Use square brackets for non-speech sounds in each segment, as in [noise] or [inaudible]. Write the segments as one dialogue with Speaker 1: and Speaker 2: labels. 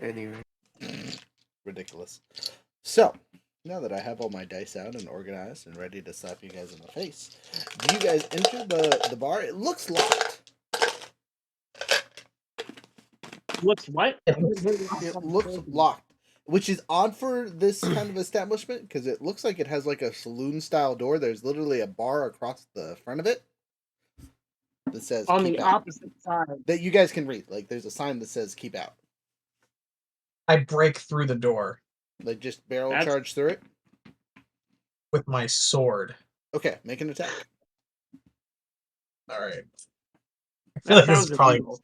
Speaker 1: anyway.
Speaker 2: Ridiculous. So, now that I have all my dice out and organized and ready to slap you guys in the face, do you guys enter the, the bar? It looks locked.
Speaker 3: Looks what?
Speaker 2: It looks locked, which is odd for this kind of establishment because it looks like it has like a saloon style door. There's literally a bar across the front of it that says
Speaker 3: on
Speaker 2: "Keep
Speaker 3: the
Speaker 2: out,"
Speaker 3: opposite side.
Speaker 2: that you guys can read. Like, there's a sign that says "Keep out."
Speaker 4: I break through the door
Speaker 2: Like, just barrel
Speaker 3: That's-
Speaker 2: charge through it.
Speaker 4: with my sword.
Speaker 2: Okay, make an attack.
Speaker 4: All right. I feel
Speaker 3: That
Speaker 4: like this is
Speaker 3: sounds
Speaker 4: probably
Speaker 3: illegal.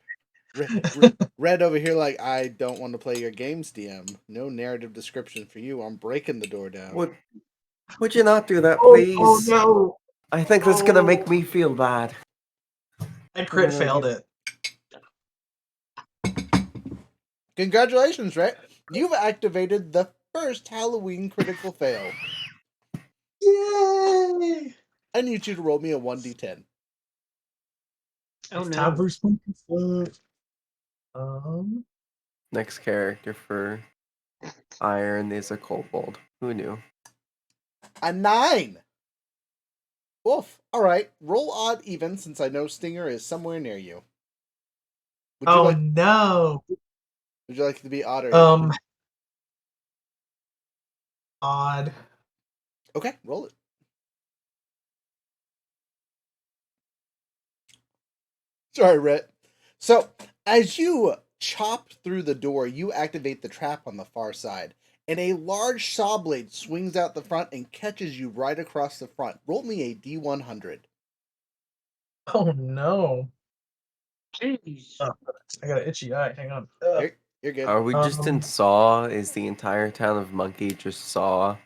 Speaker 2: Red, Red- Red over here, like I don't want to play your games, DM. No narrative description for you. I'm breaking the door down.
Speaker 1: Would, would you not do that,
Speaker 3: Oh,
Speaker 1: please?
Speaker 3: oh, no!
Speaker 1: I think that's gonna make
Speaker 3: Oh.
Speaker 1: me feel bad.
Speaker 4: I crit
Speaker 3: Yeah,
Speaker 4: failed it.
Speaker 2: Congratulations, Red. You've activated the first Halloween critical fail.
Speaker 4: Yay!
Speaker 2: I need you to roll me a one d ten.
Speaker 3: Oh no!
Speaker 4: Tabu spoon foot. Um,
Speaker 1: Next character for Iron is a kobold. Who knew?
Speaker 2: A nine. Woof. All right. Roll odd even since I know Stinger is somewhere near you. Would you
Speaker 4: oh
Speaker 2: like?
Speaker 4: no.
Speaker 2: Would you like to be odd or? even?
Speaker 4: Um, odd.
Speaker 2: Okay, roll it. Sorry, Rhett. So, as you chop through the door, you activate the trap on the far side, and a large saw blade swings out the front and catches you right across the front. Roll me a D100.
Speaker 4: Oh no.
Speaker 3: Jeez.
Speaker 4: Oh, I got an itchy eye. Hang on. Ugh.
Speaker 2: You're, you're good.
Speaker 1: Are we just in
Speaker 4: Um,
Speaker 1: Saw? Is the entire town of Monkey just Saw?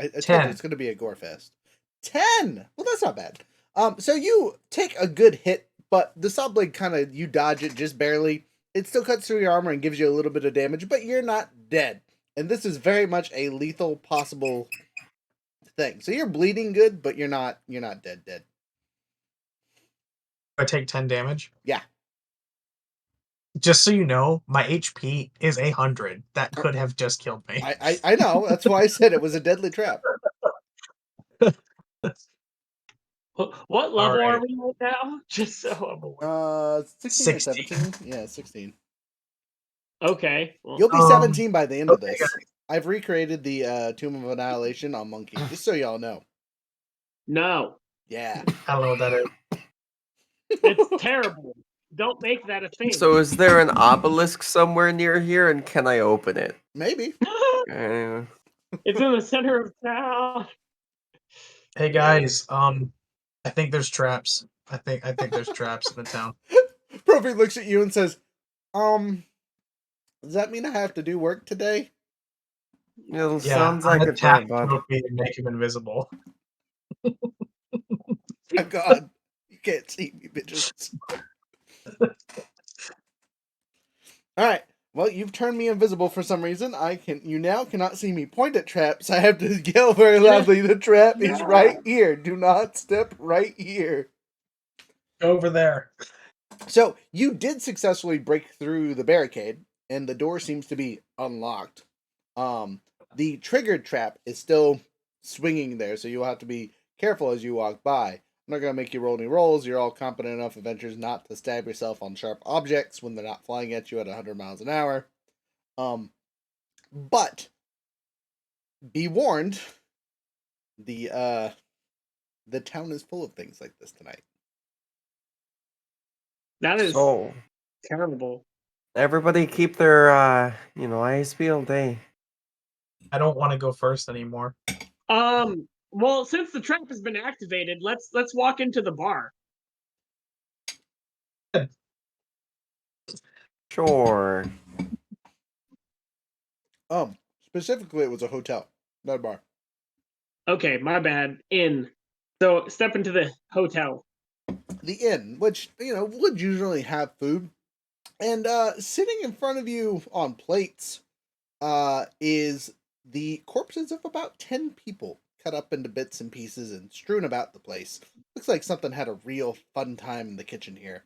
Speaker 2: I, I told you
Speaker 4: 10.
Speaker 2: it's going to be a gore fest. 10! Well, that's not bad. Um, so you take a good hit, but the saw blade kind of, you dodge it just barely. It still cuts through your armor and gives you a little bit of damage, but you're not dead. And this is very much a lethal possible thing. So you're bleeding good, but you're not, you're not dead, dead.
Speaker 4: I take 10 damage.
Speaker 2: Yeah.
Speaker 4: Just so you know, my HP is 100. That could have just killed me.
Speaker 2: I, I, I know. That's why I said it was a deadly trap.
Speaker 3: Wh- What level are
Speaker 4: Alright.
Speaker 3: we at now? [laughs] Just so I'm aware.
Speaker 2: Uh, 16
Speaker 4: 16.
Speaker 2: or 17? Yeah,
Speaker 4: [laughs]
Speaker 2: 16.
Speaker 3: Okay. well,
Speaker 2: You'll be
Speaker 4: Um,
Speaker 2: 17 by the end of
Speaker 4: okay,
Speaker 2: this. I've recreated the uh, Tomb of Annihilation on Monkey, just so y'all know. [laughs]
Speaker 3: no,
Speaker 2: Yeah.
Speaker 4: [laughs] I don't know what that is.
Speaker 3: [laughs] it's terrible. Don't make that a thing.
Speaker 1: So is there an obelisk somewhere near here, and can I open it?
Speaker 2: Maybe.
Speaker 1: Uh,
Speaker 3: [laughs] it's in the center of town.
Speaker 4: Hey guys, um, I think there's traps. I think I think there's traps in the
Speaker 1: [laughs]
Speaker 4: town.
Speaker 2: Profi looks at you and says, Um, does that mean I have to do work today?
Speaker 1: it
Speaker 4: Yeah,
Speaker 1: sounds
Speaker 4: I'm
Speaker 1: like a bad
Speaker 4: attack
Speaker 1: bud.
Speaker 4: trophy to make him invisible.
Speaker 2: My God, you can't see me, bitches. All right. Well, you've turned me invisible for some reason. I can you now cannot see me point at traps. I have to [laughs] yell very loudly. The trap is right here. Do not step right here.
Speaker 4: Over there.
Speaker 2: So you did successfully break through the barricade, and the door seems to be unlocked. Um, the triggered trap is still swinging there, so you'll have to be careful as you walk by. I'm not gonna make you roll any rolls. You're all competent enough adventurers not to stab yourself on sharp objects when they're not flying at you at 100 miles an hour. Um, but be warned, the uh, the town is full of things like this tonight.
Speaker 3: That is
Speaker 1: So
Speaker 3: terrible.
Speaker 1: everybody keep their uh, you know eyes peeled, eh?
Speaker 4: I don't want to go first anymore.
Speaker 3: Um. Well, since the trap has been activated, let's let's walk into the bar.
Speaker 1: Sure.
Speaker 2: Um, specifically, it was a hotel, not a bar.
Speaker 3: Okay, my bad. In. So step into the hotel.
Speaker 2: The inn, which you know would usually have food, and uh, sitting in front of you on plates, uh, is the corpses of about ten people cut up into bits and pieces and strewn about the place. Looks like something had a real fun time in the kitchen here.